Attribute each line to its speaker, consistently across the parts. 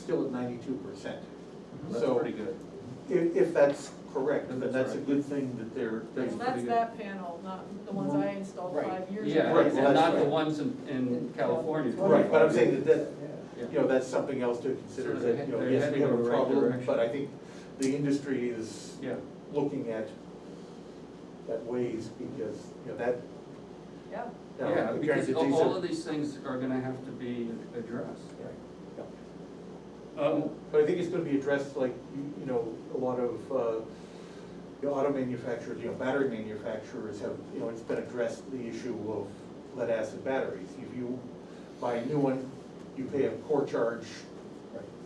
Speaker 1: still at ninety-two percent.
Speaker 2: That's
Speaker 1: So-
Speaker 2: pretty good.
Speaker 1: If, if that's correct, then
Speaker 2: That's
Speaker 1: that's a
Speaker 2: right.
Speaker 1: good thing that they're, they're
Speaker 3: Well, that's
Speaker 1: putting it.
Speaker 3: that panel, not the ones I installed
Speaker 4: Right.
Speaker 3: five years ago.
Speaker 2: Yeah,
Speaker 1: Right, well,
Speaker 2: and not the
Speaker 1: right.
Speaker 2: ones in, in California.
Speaker 1: Right, but I'm saying that that,
Speaker 2: Yeah.
Speaker 1: you know, that's something else to consider,
Speaker 2: Sort of
Speaker 1: that, you know,
Speaker 2: they're
Speaker 1: yes, we
Speaker 2: heading
Speaker 1: have a
Speaker 2: in the right
Speaker 1: problem,
Speaker 2: direction.
Speaker 1: but I think the industry is
Speaker 2: Yeah,
Speaker 1: looking at that ways, because, you know, that,
Speaker 3: Yeah,
Speaker 1: you know,
Speaker 2: yeah,
Speaker 1: the
Speaker 2: because
Speaker 1: transit
Speaker 2: all
Speaker 1: diesel-
Speaker 2: all of these things are gonna have to be addressed.
Speaker 1: Right, yeah.
Speaker 2: Um,
Speaker 1: But I think it's gonna be addressed like, you- you know, a lot of, uh, the auto manufacturers, you know, battery manufacturers have, you know, it's been addressed, the issue of lead acid batteries. If you buy a new one, you pay a core charge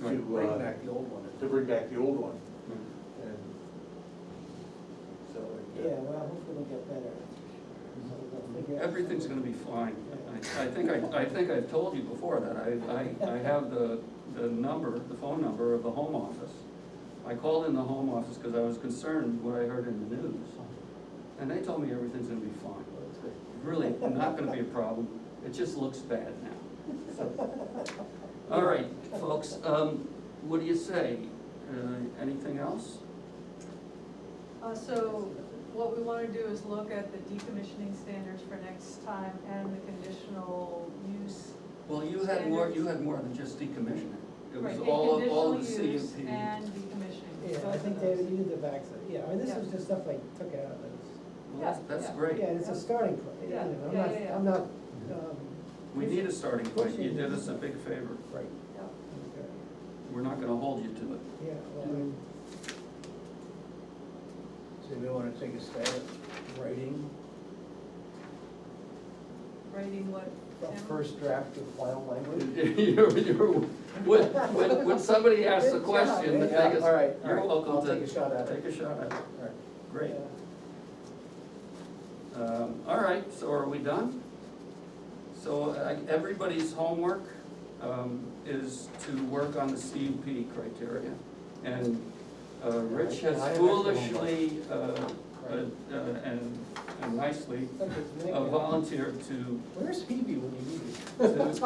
Speaker 2: Right.
Speaker 1: to,
Speaker 4: Bring
Speaker 1: uh,
Speaker 4: back the old one.
Speaker 1: to bring back the old one.
Speaker 2: mm.
Speaker 1: And so.
Speaker 5: Yeah, well, hopefully it'll get better. So we'll figure out
Speaker 2: Everything's gonna
Speaker 5: something.
Speaker 2: be fine. I, I think I, I think I've told you before that, I, I, I have the, the number, the phone number of the home office. I called in the home office because I was concerned what I heard in the news, and they told me everything's gonna be fine. Really, not gonna be a problem, it just looks bad now. So, All right, folks, um, what do you say? Uh, anything else?
Speaker 3: uh, so what we wanna do is look at the decommissioning standards for next time and the conditional use.
Speaker 2: Well, you had more, you had more than just decommissioning. It
Speaker 3: Right,
Speaker 2: was
Speaker 3: and
Speaker 2: all, of- all of the
Speaker 3: conditional use
Speaker 2: CUP.
Speaker 3: And decommissioning.
Speaker 5: Yeah, I
Speaker 3: both
Speaker 5: think
Speaker 3: of
Speaker 5: David,
Speaker 3: those.
Speaker 5: you did the backside, yeah, I mean, this was
Speaker 3: Yeah.
Speaker 5: just stuff I took out of those.
Speaker 2: Well, that's, that's
Speaker 3: Yeah, yeah.
Speaker 2: great.
Speaker 5: Yeah, it's a starting point, you know,
Speaker 3: Yeah,
Speaker 5: I'm
Speaker 3: yeah,
Speaker 5: not,
Speaker 3: yeah, yeah.
Speaker 5: I'm not,
Speaker 4: Mm-hmm.
Speaker 5: um.
Speaker 2: We need a starting point, you did us a big favor,
Speaker 5: Right.
Speaker 3: Yeah.
Speaker 5: Okay.
Speaker 2: we're not gonna hold you to it.
Speaker 5: Yeah, well, I mean,
Speaker 4: So we wanna take a stab at writing
Speaker 3: Writing what?
Speaker 4: the
Speaker 3: Tim?
Speaker 4: first draft of final language?
Speaker 2: You're- you're- When, when, when somebody asks a
Speaker 5: Good job.
Speaker 2: question, the
Speaker 4: Yeah,
Speaker 2: thing is,
Speaker 4: all right, all
Speaker 2: you're
Speaker 4: right.
Speaker 2: welcome
Speaker 4: I'll
Speaker 2: to.
Speaker 4: take a shot at it.
Speaker 2: Take a shot at it,
Speaker 4: All right.
Speaker 2: Mm-hmm. great.
Speaker 5: yeah.
Speaker 2: Um, all right, so are we done? So, I everybody's homework, um, is to work on the CUP criteria. And, uh, Rich has
Speaker 4: I have extra homework.
Speaker 2: foolishly, uh, uh, uh, and and nicely
Speaker 5: Look, it's
Speaker 2: uh,
Speaker 5: making-
Speaker 2: volunteered to
Speaker 4: Where's Phoebe when you need her?
Speaker 2: to-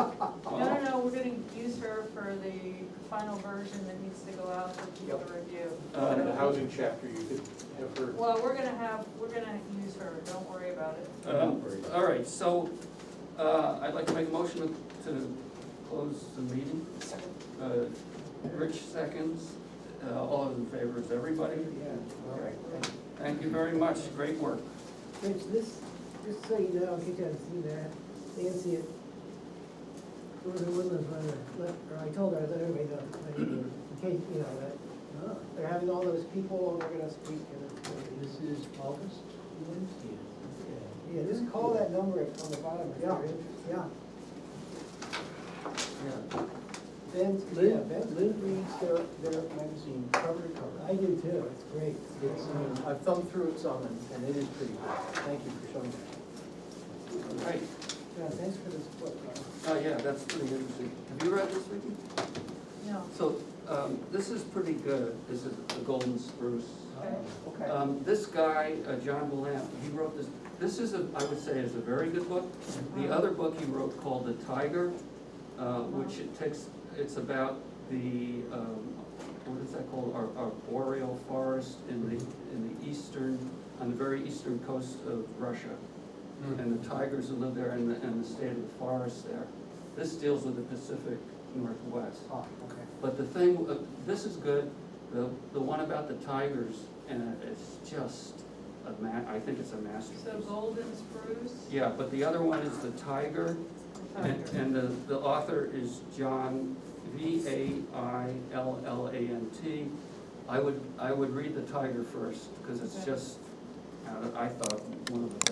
Speaker 3: No, no, no, we're gonna use her for the final version that needs to go out for people to review.
Speaker 2: Um,
Speaker 1: And uh, the housing chapter, you could have heard.
Speaker 3: Well, we're gonna have, we're gonna use her, don't worry about it.
Speaker 2: Um, All right, so, uh, I'd like to make a motion to close the meeting. Uh, Rich seconds, uh, all those in favor is everybody.
Speaker 5: Yeah, all right, thank you.
Speaker 2: Thank you very much, great work.
Speaker 5: Rich, this, just so you know, I'll get you to see that, Nancy at Gordon Woodland's running, let, or I told her, I let everybody know, like, in case, you know, that they're having all those people, and they're gonna speak, and it's gonna be-
Speaker 4: This is August Wednesday.
Speaker 5: yeah, just call that number on the bottom if you're interested.
Speaker 4: Yeah.
Speaker 5: Ben's, yeah,
Speaker 4: Lynn,
Speaker 5: Ben's,
Speaker 4: Lynn reads their, their magazine cover to cover.
Speaker 5: I do too, it's great.
Speaker 4: It's, um, I've thumbed through it some and- and it is pretty good. Thank you for showing that.
Speaker 2: All right,
Speaker 5: John, thanks for this book. Carl.
Speaker 2: oh, yeah, that's pretty interesting. Have you read this, Vicky?
Speaker 3: No,
Speaker 2: So, um, this is pretty good, this is The Golden Spruce.
Speaker 3: okay,
Speaker 4: Uh, Okay.
Speaker 2: Um, this guy, uh, John Willamp, he wrote this, this is a, I would say is a very good book. The other book he wrote called The Tiger, uh, which it takes, it's about the, um, what is that called? Our, our boreal forest in the, in the eastern, on the very eastern coast of Russia. And the tigers that live there and the, and the state of the forest there. This deals with the Pacific Northwest.
Speaker 4: Ah, okay.
Speaker 2: But the thing, uh, this is good, the, the one about the tigers, and it's just a ma, I think it's a
Speaker 3: so
Speaker 2: masterpiece.
Speaker 3: Golden Spruce?
Speaker 2: Yeah, but the other one is the tiger, and,
Speaker 3: Tiger.
Speaker 2: and the, the author is John, V A I L L A N T. I would, I would read the tiger first, because it's
Speaker 3: Okay.
Speaker 2: just, uh, I thought, one of the